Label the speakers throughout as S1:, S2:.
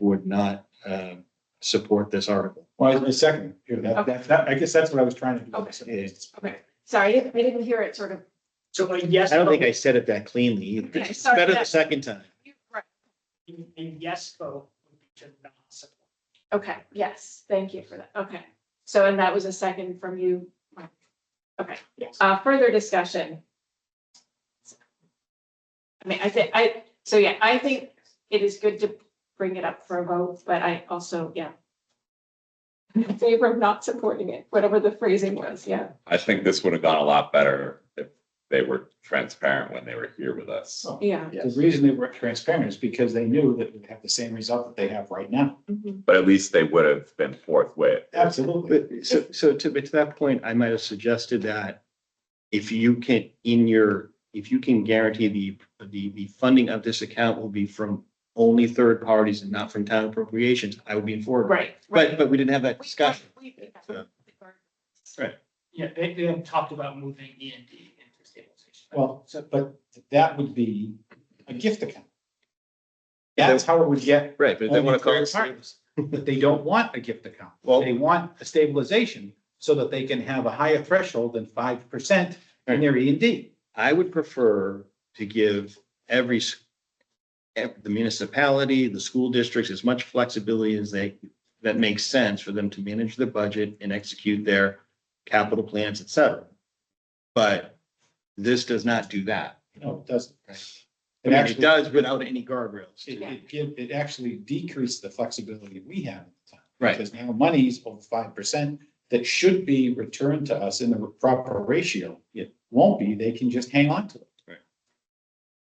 S1: would not uh, support this article.
S2: Well, I second, here, that,
S3: Okay.
S2: that, that, I guess that's what I was trying to do.
S3: Okay.
S2: It's-
S3: Okay, sorry, I didn't, I didn't hear it sort of.
S4: So a yes.
S1: I don't think I
S4: vote-
S1: said it that cleanly either.
S3: Okay,
S1: It's
S3: sorry,
S1: better
S3: yeah.
S1: the second time.
S3: Right.
S4: A yes vote would be to not support.
S3: Okay, yes, thank you for that. Okay. So, and that was a second from you. Mike. Okay,
S4: Yes.
S3: uh, further discussion. I mean, I think, I, so yeah, I think it is good to bring it up for a vote, but I also, yeah. I'm In favor of not supporting it, whatever the phrasing was, yeah.
S5: I think this would have gone a lot better if they were transparent when they were here with us.
S2: so,
S3: Yeah.
S2: The reason they were transparent is because they knew that we'd have the same result that they have right now.
S3: Mhm.
S5: But at least they would have been forthwith.
S2: Absolutely.
S1: But so, so to, to that point, I might have suggested that if you can, in your, if you can guarantee the, the, the funding of this account will be from only third parties and not from town appropriations, I would be in favor.
S3: Right.
S1: But, but we didn't have that
S3: We-
S1: discussion.
S3: we- we-
S1: So-
S4: Yeah, they, they have talked about moving E and D into stabilization.
S2: Well, so- but that would be a gift account. That's how it would get,
S5: Right, but
S2: they wanna call it savings. but they don't want a gift account.
S5: Well-
S2: They want a stabilization so that they can have a higher threshold than five percent in their E and D.
S1: I would prefer to give every, s- ev- the municipality, the school districts, as much flexibility as they, that makes sense for them to manage their budget and execute their capital plans, et cetera. But this does not do that.
S2: No, it doesn't.
S1: I
S2: It
S1: mean, it
S2: actually,
S1: does without any guardrails.
S2: it,
S1: too.
S2: it give, it actually decreased the flexibility we have at the time.
S1: Right,
S2: Because now money's over five percent that should be returned to us in the proper ratio. It won't be, they can just hang on to it.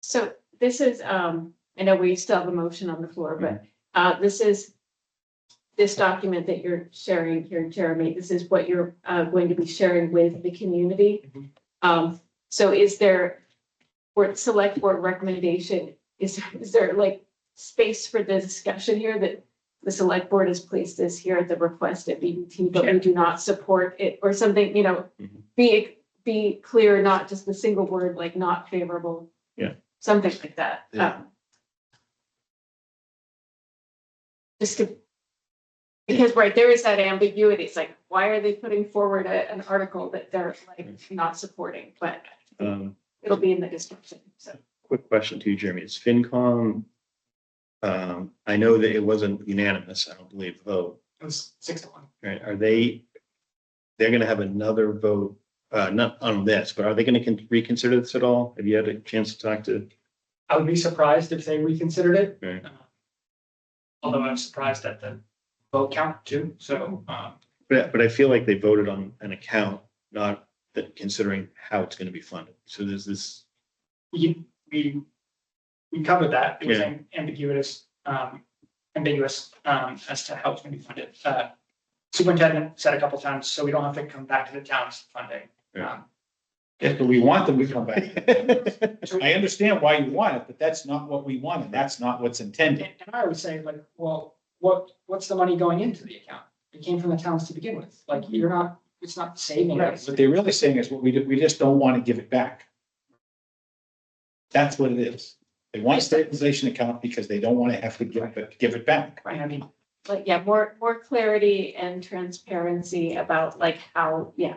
S3: So this is, um, I know we still have a motion on the floor, but, uh, this is this document that you're sharing here, Jeremy, this is what you're, uh, going to be sharing with the community.
S4: Mhm.
S3: Um, so is there, for select board recommendation, is, is there like space for the discussion here that the select board has placed this here at the request of BBT, but we
S4: Sure.
S3: do not support it or something, you know,
S1: Mhm.
S3: be, be clear, not just the single word, like not favorable something like that.
S1: Yeah.
S3: um, Just to, because, right, there is that ambiguity, it's like, why are they putting forward a, an article that they're like not supporting, but
S1: um,
S3: it'll be in the description, so.
S1: quick question to you, Jeremy, is FinCom, um, I know that it wasn't unanimous, I don't believe, vote,
S4: It was six to one.
S1: Right, are they, they're gonna have another vote, uh, not on this, but are they gonna con- reconsider this at all? Have you had a chance to talk to?
S4: I would be surprised if they reconsidered it.
S1: Right.
S4: Uh, Although I'm surprised at the vote count too, so, um,
S1: But, but I feel like they voted on an account, not that considering how it's gonna be funded. So there's this,
S4: we, we, we covered that. It was
S1: Yeah.
S4: am- ambiguous, um, ambiguous, um, as to how it's gonna be funded. Uh, Superintendent said a couple times, so we don't have to come back to the town's funding.
S1: Yeah.
S4: Um,
S2: If we want them, we come back. I understand why you want it, but that's not what we want, and that's not what's intended.
S4: And and I would say like, well, what, what's the money going into the account? It came from the towns to begin with. Like, you're not, it's not saving us.
S2: What they're really saying is what we, do- we just don't want to give it back. That's what it is. They want a stabilization account because they don't want to have to give it, give it back.
S4: Right, I mean,
S3: But yeah, more, more clarity and transparency about like how, yeah,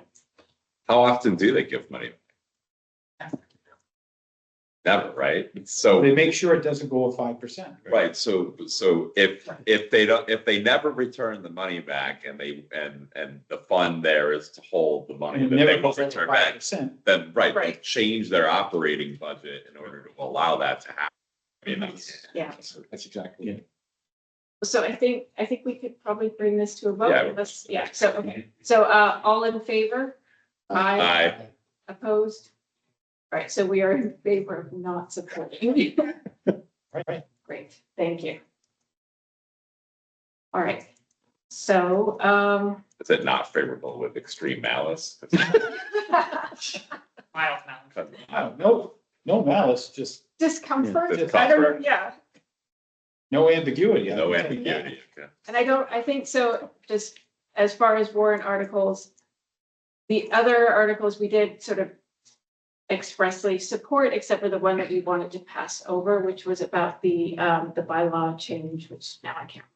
S5: How often do they give money? Never, right? So,
S2: They make sure it doesn't go with five percent.
S5: right, so, so if, if they don't, if they never return the money back and they, and, and the fund there is to hold the money
S2: And
S5: that
S2: it
S5: they
S2: never
S5: will
S2: goes over
S5: return
S2: five
S5: back,
S2: percent.
S5: then, right, they
S4: Right.
S5: change their operating budget in order to allow that to happen. I mean, that's-
S3: yeah.
S2: That's exactly it.
S3: So I think, I think we could probably bring this to a
S5: Yeah.
S3: vote, let's, yeah, so, okay, so, uh, all in favor? Aye.
S5: I,
S3: Opposed? All right, so we are in favor of not supporting.
S2: Right.
S3: Great, thank you. All right, so, um,
S5: is it not favorable with extreme malice?
S4: mild amount.
S2: Wow, no, no malice, just
S3: discomfort,
S5: Just
S3: I
S5: comfort.
S3: don't, yeah,
S2: no ambiguity.
S5: No ambiguity. okay.
S3: and I don't, I think so, just as far as warrant articles, the other articles we did sort of expressly support, except for the one that we wanted to pass over, which was about the, um, the bylaw change, which now I can't